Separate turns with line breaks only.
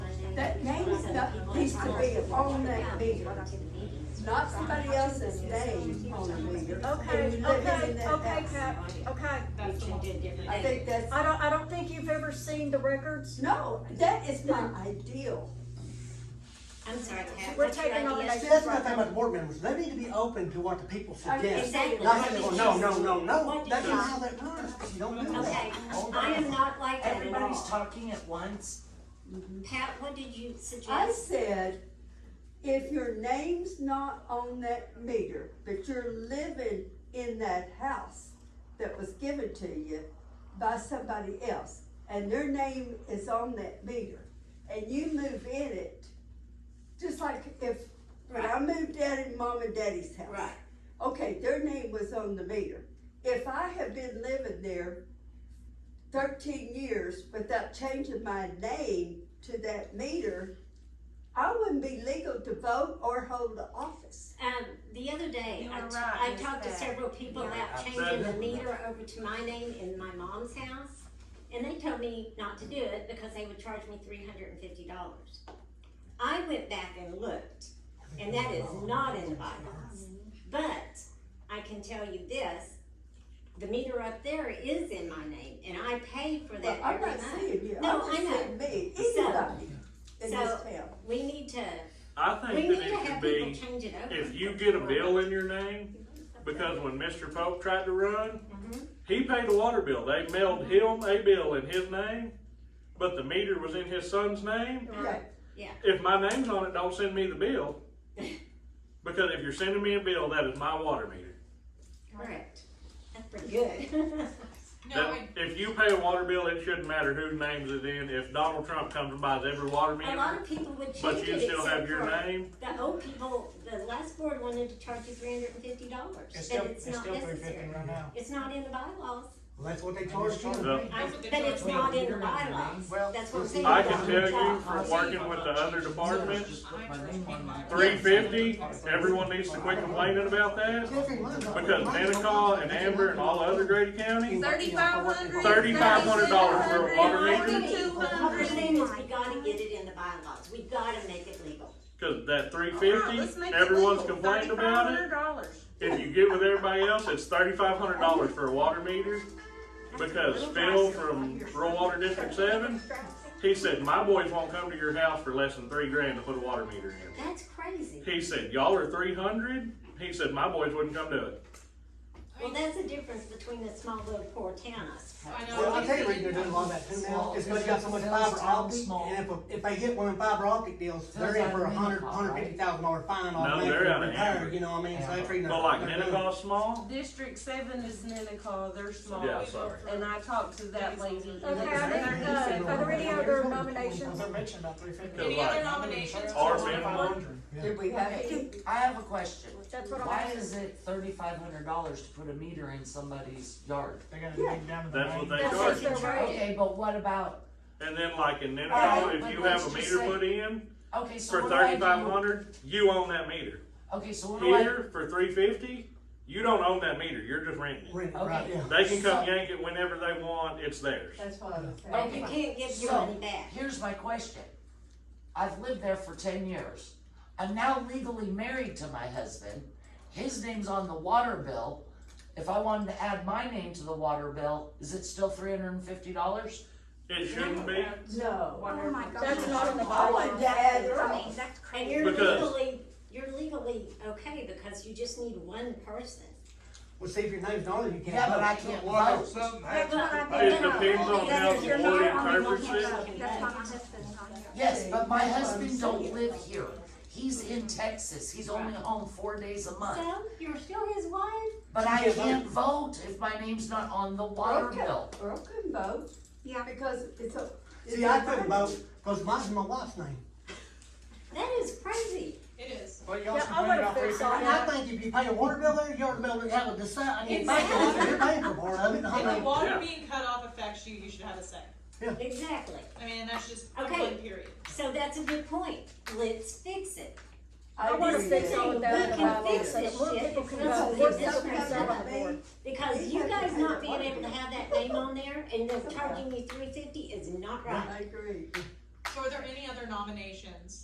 up, needs to be on that meter, not somebody else's name on the meter. And
Okay,
you live in
okay,
that
okay,
house.
Cap, okay.
I think that's,
I don't, I don't think you've ever seen the records.
no, that is not ideal.
I'm sorry, Kat,
We're
what's your
taking on the
idea?
next-
That's my thing about the board members, they need to be open to what the people suggest.
Oh, Exactly.
Not saying, well, "Oh, no, no, no, no,
What did
that's
you-
not how that works, you don't do
Okay,
that.
I am not like that at
Everybody's
all.
talking at once.
Pat, what did you
I
suggest?
said, if your name's not on that meter, but you're living in that house that was given to you by somebody else, and their name is on that meter, and you move in it, just like if, when I moved out in mom and daddy's house.
Right.
Okay, their name was on the meter. If I had been living there thirteen years without changing my name to that meter, I wouldn't be legal to vote or hold the office.
Um, the other day,
You
I,
were
t-
right,
I
Miss
talked to
Pat.
several people about changing the meter over to my name in my mom's house. And they told me not to do it because they would charge me three hundred and fifty dollars. I went back and looked, and that is not in the bylaws. But I can tell you this, the meter up there is in my name, and I pay for
Well,
that
I'm
every
not
month.
saying you, I'm
No,
just
I know.
saying me,
So-
anybody in this
so-
town.
We need to,
I
we
think
need to
that it should
have people
be,
change it over.
if you get a bill in your name, because when Mr. Pope tried to run,
Mhm.
he paid a water bill. They mailed
Mm-hmm.
him a bill in his name, but the meter was in his son's name.
Right.
If my name's on it, don't send me the bill. Because if you're sending me a bill, that is my water meter.
Correct. That's pretty good.
No,
That, if you pay a water bill, it shouldn't matter whose name's it in. If Donald Trump comes and buys every water
A lot
meter,
of people would change
but
it.
you still have
except
your
for
name,
The old people, the last board wanted to charge you three hundred and fifty dollars,
It's still,
and it's
it's
not
still three fifty
necessary.
right now.
It's not in the bylaws,
Well, that's what they charge you.
the
That's what they
but it's
charge
not
me.
in the bylaws,
Well,
that's what I'm saying.
I can tell you
Job.
from working with the other departments, three fifty, everyone needs to quit complaining about that. Because Manicaw and Amber and all the other Grady counties,
Thirty-five hundred.
Thirty-five hundred dollars for a water meter?
Forty-two
What we're
hundred.
saying is we gotta get it in the bylaws, we gotta make it legal.
cause that three fifty, everyone's complaining about it. If you get with everybody else, it's thirty-five hundred dollars for a water meter. Because Phil from Rural Water District Seven, he said, my boys won't come to your house for less than three grand to put a water meter in.
That's crazy.
He said, y'all are three hundred? He said, my boys wouldn't come to it.
Well, that's the difference between a small little poor town, I suppose.
I know.
Well, I'll tell you, what they're doing a lot of that too now, it's because you got so much fiber optic, and if, if they get one of them fiber optic deals, they're in for a hundred, hundred fifty thousand dollar fine
No,
on that.
they're out of hand.
You know what I mean, so they're treating.
But like
they're doing-
Manicaw Small,
District seven is Minnetonka, they're small,
yeah, sorry.
and I talked to that lady.
Okay, I think, uh, are there any other nominations?
Any
other nominations?
Our minimum.
Did we have any?
I have a question.
That's what I'm
Why
asking.
is it thirty-five hundred dollars to put a meter in somebody's yard?
That's what they
That's
charge.
just their right.
Okay, but what about,
And then like in
All
Nenagel,
right,
if you
but
have a
let's just
meter
say-
put in
okay, so
for
what do I do?
thirty-five hundred, you own that meter.
Okay, so what do I?
Here, for three fifty, you don't own that meter, you're just renting it.
Rent, right,
Okay.
yeah.
They can come
So-
yank it whenever they want, it's theirs.
That's what I was saying.
But you can't give your
So-
money back.
Here's my question. I've lived there for ten years. I'm now legally married to my husband. His name's on the water bill. If I wanted to add my name to the water bill, is it still three hundred and fifty dollars?
It shouldn't be,
No.
Oh my gosh.
That's not in the
I wanted to
bylaws.
add it
I mean,
on.
that's
And
crazy.
you're
Because-
legally, you're legally okay because you just need one person.
Well, see, if your name's not on it, you can't.
Yeah, but
vote.
I can't vote.
That's what I
it
think.
depends on how the
You're not
board
on the
interprets it.
contract.
That's why my husband's on here.
Yes, but my husband don't live here. He's in Texas. He's only home four days a month.
So, you're still his wife?
But I can't vote if my name's not on the water bill.
Earl can vote.
Yeah.
Because it's a. it's
See, I
a-
couldn't vote, cause mine's my wife's name.
That is crazy.
It is.
Yeah, I wanna fix all
And I
that.
think if you pay a water bill there, your water bill doesn't have a decide, I mean, bank it, you're paying for part of it, I
If the
mean,
water
Yeah.
being cut off affects you, you should have a say.
Exactly.
I mean, that's just
Okay.
one period.
So that's a good point. Let's fix it.
I wanna
agree
fix
with
all
you.
of that in the
We can
bylaws,
fix
so that
this
more
shit.
people can
It's
vote,
not
more
like
people can
this
serve on the
happened.
board.
Because you guys not being able to have that name on there and then charging me three fifty is not right.
I agree.
So are there any other nominations?